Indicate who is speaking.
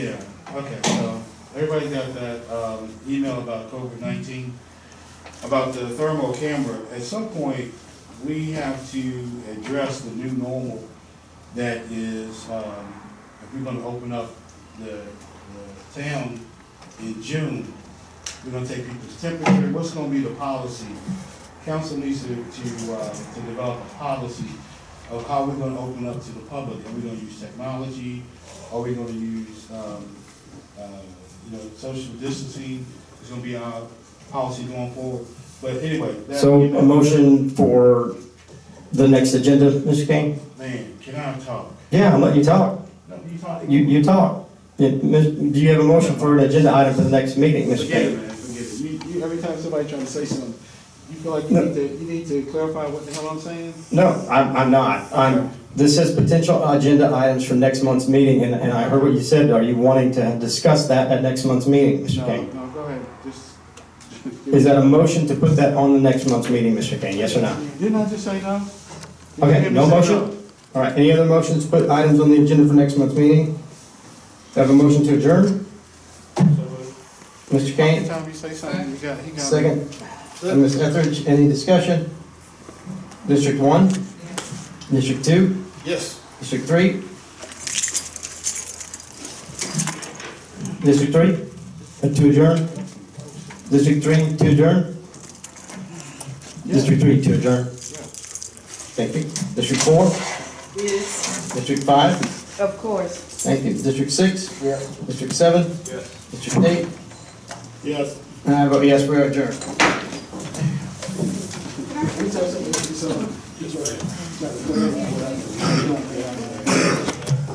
Speaker 1: Okay, so everybody got that um, email about COVID-19, about the thermal camera. At some point, we have to address the new normal that is, um, if we're gonna open up the the town in June, we're gonna take people's temperature, what's gonna be the policy? Council needs to, to, uh, to develop a policy of how we're gonna open up to the public. Are we gonna use technology? Are we gonna use, um, uh, you know, social distancing? It's gonna be our policy going forward. But anyway. that-
Speaker 2: So
Speaker 1: you know,
Speaker 2: a motion for the next agenda, Mr. King?
Speaker 1: Man, can I talk?
Speaker 2: Yeah, I'll let you talk.
Speaker 1: No, you talk.
Speaker 2: You, you talk. Yeah, Ms- Do you have a motion for an agenda item for the next meeting, Mr.
Speaker 1: Forget it,
Speaker 2: King?
Speaker 1: man, forget it.
Speaker 3: You, you, every time somebody trying to say something, you feel like you
Speaker 2: No.
Speaker 3: need to, you need to clarify what the hell I'm saying?
Speaker 2: No, I'm, I'm not.
Speaker 3: Okay.
Speaker 2: I'm, this is potential agenda items for next month's meeting, and, and I heard what you said. Are you wanting to discuss that at next month's meeting, Mr.
Speaker 3: No,
Speaker 2: King?
Speaker 3: no, go ahead, just.
Speaker 2: Is that a motion to put that on the next month's meeting, Mr. King? Yes or no?
Speaker 3: Didn't I just say no? Did you
Speaker 2: Okay,
Speaker 3: hear me
Speaker 2: no
Speaker 3: say
Speaker 2: motion? All right, any other motions to put items on the agenda for next month's meeting? Have a motion to adjourn? Mr. Kane?
Speaker 3: Anytime you say something, you got, he got.
Speaker 2: Second, Uh, Ms. Etheridge, any discussion? District one? District two?
Speaker 1: Yes.
Speaker 2: District three? District three, uh, to adjourn? District three, to adjourn? District three, to adjourn? Thank you. District four?
Speaker 4: Yes,
Speaker 2: District five?
Speaker 4: of course.
Speaker 2: Thank you. District six? District seven? District eight?
Speaker 1: Yes.
Speaker 2: And I vote yes, we are adjourned.
Speaker 3: Let me tell you something, let me tell you something.